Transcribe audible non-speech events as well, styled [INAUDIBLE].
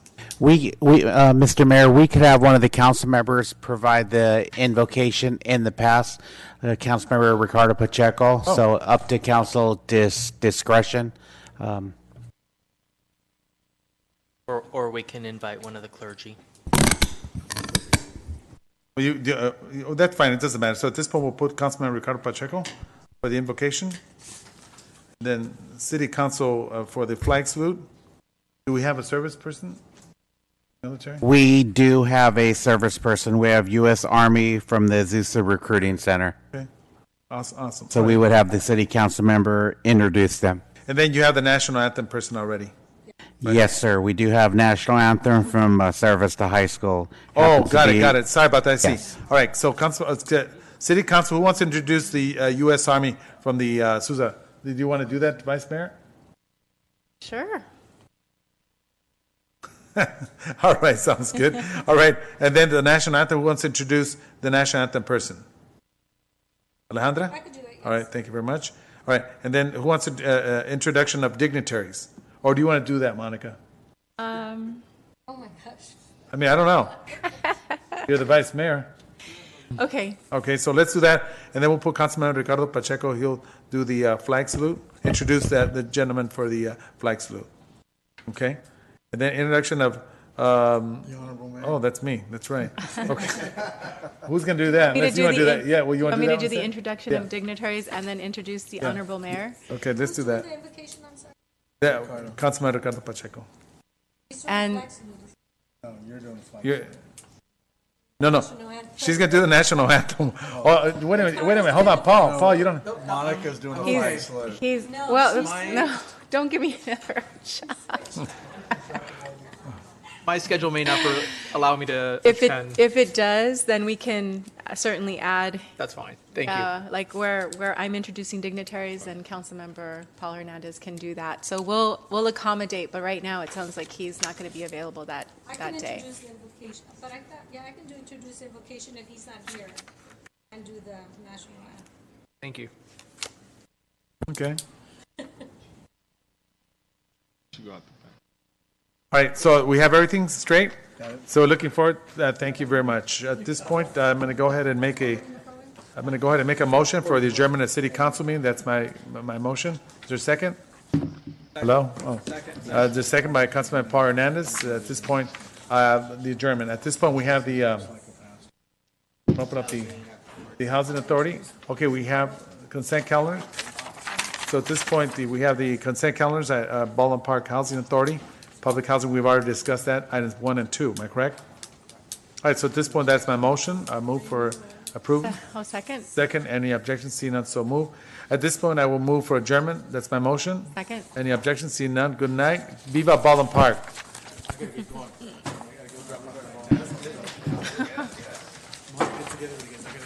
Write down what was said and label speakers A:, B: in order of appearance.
A: We, we, uh, Mr. Mayor, we could have one of the council members provide the invocation in the past. Uh, Councilmember Ricardo Pacheco,
B: Oh.
A: so up to council dis- discretion. Um,
C: Or, or we can invite one of the clergy.
B: Well, You, the, uh, you- oh, that's fine, it doesn't matter. So at this point, we'll put Councilman Ricardo Pacheco for the invocation. Then City Council uh, for the flag salute. Do we have a service person? Military?
A: We do have a service person. We have U.S. Army from the Azusa Recruiting Center.
B: Okay. Awes- Awesome.
A: So we would have the city council member introduce them.
B: And then you have the national anthem person already.
A: Yes, sir. We do have national anthem from uh, service to high school.
B: Oh,
A: Happens to
B: got it,
A: be-
B: got it. Sorry about that, I
A: Yes.
B: see. All right, so Council, uh, c- City Council, who wants to introduce the uh, U.S. Army from the uh, Sousa? Do you want to do that, Vice Mayor?
D: Sure.
B: [LAUGHS] All right, sounds good. All right, and then the national anthem. Who wants to introduce the national anthem person? Alejandra. I could do that. All right, thank you very much. All right, and then who wants to uh, uh, introduction of dignitaries? Or do you want to do that, Monica?
D: Um,
B: Oh I mean, I don't [LAUGHS] know. You're the vice mayor.
D: okay.
B: Okay, so let's do that, and then we'll put Councilman Ricardo Pacheco. He'll do the uh, flag salute. Introduce that the gentleman for the uh, flag salute. Okay, and then introduction of. Um, the honorable mayor. Oh, that's me. That's right. Okay. Who's gonna do that?
D: Want me
B: Unless you wanna do
D: the
B: that? Yeah. Well, you wanna do that?
D: me to do the
B: one
D: introduction
B: Yeah.
D: of dignitaries and then introduce the honorable mayor?
B: instead? Okay, let's do that. Yeah, Councilman Ricardo Pacheco.
D: And,
B: You're- No, no. She's gonna do the national anthem. Oh, uh, wait a minute. Wait a minute. Hold on, Paul. Paul, you don't.
E: Monica's doing
D: oh,
E: a flag
D: he's,
E: salute.
D: he's, well, it's- no, [LAUGHS] don't give me another shot.
F: My schedule
D: [LAUGHS]
F: may not per- allow me to
D: If
F: attend.
D: it, if it does, then we can uh, certainly add,
F: That's fine. Thank you.
D: uh, like where, where I'm introducing dignitaries and Councilmember Paul Hernandez can do that. So we'll, we'll accommodate, but right now it sounds like he's not going to be available that,
G: I can
D: that day.
G: introduce the invocation, but I thought, yeah, I can do introduce the invocation if he's not here and do the national anthem.
F: Thank you.
B: Okay. All right, so we have everything straight. So looking forward, uh, thank you very much. At this point, uh, I'm going to go ahead and make a, I'm going to go ahead and make a motion for the adjournment of city council meeting. That's my, my motion. Is there a second? Hello? Oh. Uh, The second by Councilman Paul Hernandez. At this point, uh, the adjournment. At this point, we have the, um, open up the, the housing authority. Okay, we have consent calendar. So at this point, the- we have the consent calendars at uh, Baldwin Park Housing Authority, Public Housing, we've already discussed that, items one and two, am I correct? All right, so at this point, that's my motion, I move for approval.
D: Oh, second,
B: Second, any objections, seeing none, so move. At this point, I will move for adjournment, that's my motion.
D: second.
B: Any objections, seeing none, good night, viva Baldwin Park.